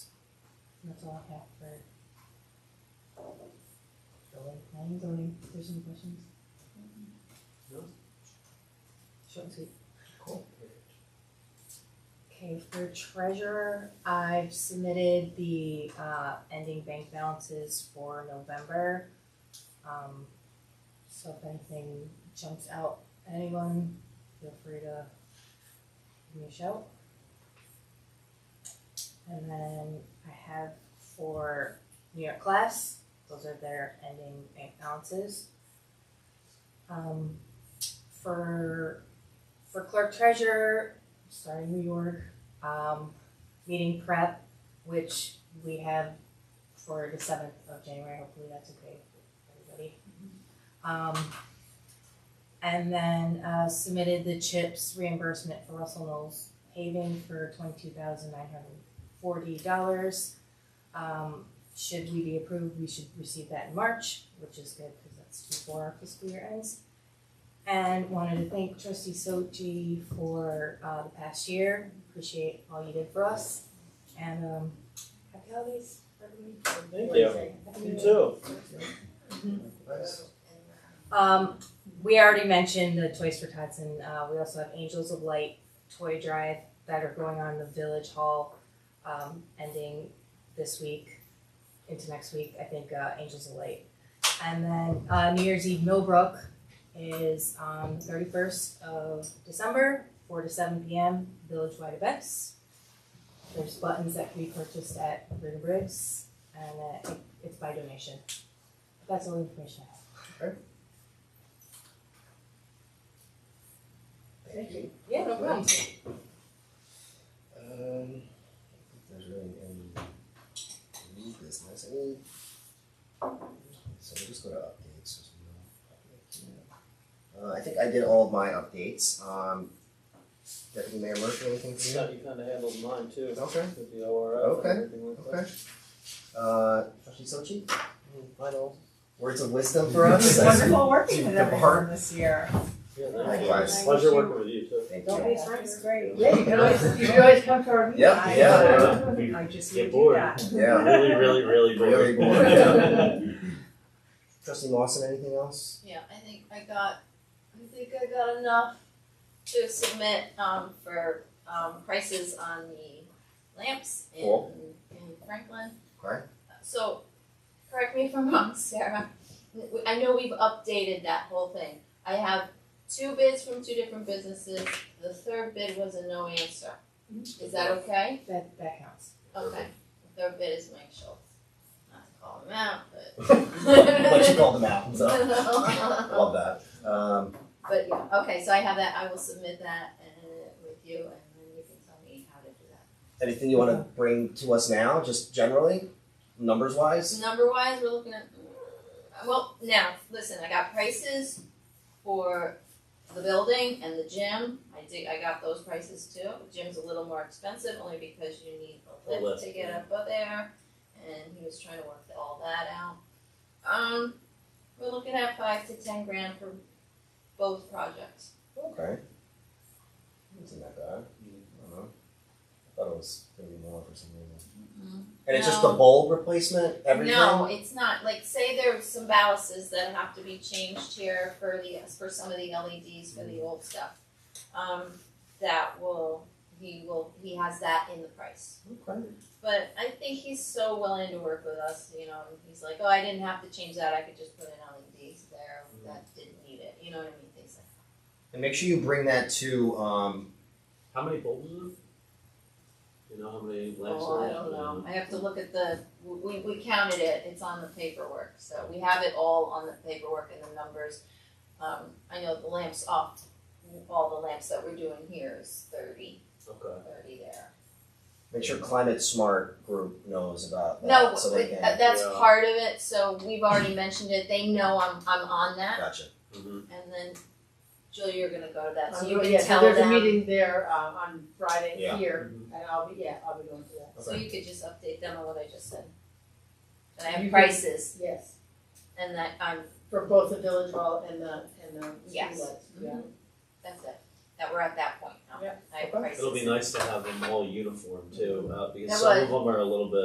That's all I have for. Zoning, planning, zoning, if there's any questions. No. Short and sweet. Cool. Okay, for treasurer, I've submitted the uh ending bank balances for November. Um, so if anything jumps out, at anyone, feel free to give me a shout. And then I have for New York class, those are their ending bank balances. Um, for for clerk treasurer, starting New York, um, meeting prep, which we have for the seventh of January, hopefully that's okay with everybody. Um, and then, uh, submitted the CHIPS reimbursement for Russell Knowles paving for twenty-two thousand nine hundred forty dollars. Um, should we be approved, we should receive that in March, which is good, cause that's before our fiscal year ends. And wanted to thank trustee Sochi for, uh, the past year, appreciate all you did for us, and, um, happy holidays, everybody. Thank you. You too. Nice. Um, we already mentioned the Toys for Tots, and uh, we also have Angels of Light toy drive that are going on in the Village Hall, um, ending this week into next week. I think uh, Angels of Light, and then uh, New Year's Eve Millbrook is on thirty first of December, four to seven p.m. Village wide events. There's buttons that can be purchased at Ritter Briggs, and uh, it, it's by donation. That's all the information I have. Thank you. Yeah, no problem. Um, I don't think there's really any new business. Any? So we'll just go to updates. There's no update. Uh, I think I did all of my updates. Um, Deputy Mayor Murphy, anything for you? Yeah, you kinda handled mine too, Okay. with the ORF and Okay, everything like that. Okay. Uh, Trustee Sochi, Mm, Final, words of wisdom for us. It's wonderful working with The bar. everyone this year. yeah, thank you. Likewise. Pleasure working with you too. Thank Don't you. be afraid, it's great. Yeah, you can always- you can always come to our meetings. Yeah, yeah. We I just get would do bored. that. Yeah. Really, really, really bored. Really bored, yeah. Trustee Lawson, anything else? Yeah, I think I got, I think I got enough to submit, um, for, um, prices on the lamps in, Cool. in Franklin. Okay. So, correct me if I'm wrong, Sarah, W- I know we've updated that whole thing. I have two bids from two different businesses, the third bid was a no answer. Is that okay? That, that counts. Okay, the third bid is Mike Schultz. Not to call him out, But you called them out, so. Uh-huh. but. Love that. Um, But yeah, okay, so I have that, I will submit that and with you and then you can tell me how to do that. anything you want to bring to us now, just generally, numbers wise? Number wise, we're looking at, uh, well, now, listen, I got prices for the building and the gym. I did, I got those prices too. Gym's a little more expensive only because you need A a lift lift, to get up there and he was trying to work all that out. Um, we're looking at five to ten grand for both projects. Okay. Isn't that bad? I don't know. I thought it was gonna be more for some reason. And it's just the No. bulb replacement, everything? No, it's not. Like, say there's some balances that have to be changed here for the, for some of the LEDs for the old stuff. Um, that will, he will, he has that in the price. Okay. But I think he's so willing to work with us, you know, and he's like, oh, I didn't have to change that. I could just put in LEDs there that didn't need it. You know what I mean? Things like And make sure you bring that to, um, How many bulbs is it? You know how many that. lamps Oh, there I are? don't know. I have to look at the, we, we counted it. It's on the paperwork. So we have it all on the paperwork and the numbers. Um, I know the lamps off, all the lamps that we're doing here is thirty, Okay. thirty there. make sure Climate Smart Group knows about No, that, so they but can. tha- that's Yeah. part of it, so we've already mentioned it, they know I'm, I'm on that, Gotcha. Mm-hmm. and then Julie, you're gonna go to that, so Um, you yeah, can so tell there's a them, meeting there, um, on Friday Yeah. here, Mhm. and I'll be, yeah, I'll be going to that, so you could just update them on what I just said. And I You have could- prices, yes, and that I'm, for both the village hall and the, and the Yes. Mm-hmm. streetlights, yeah. that's it, that we're at that point now, Yeah. I have Okay. prices. It'll be nice to have them all uniform too, uh, That because some would. of them are a little bit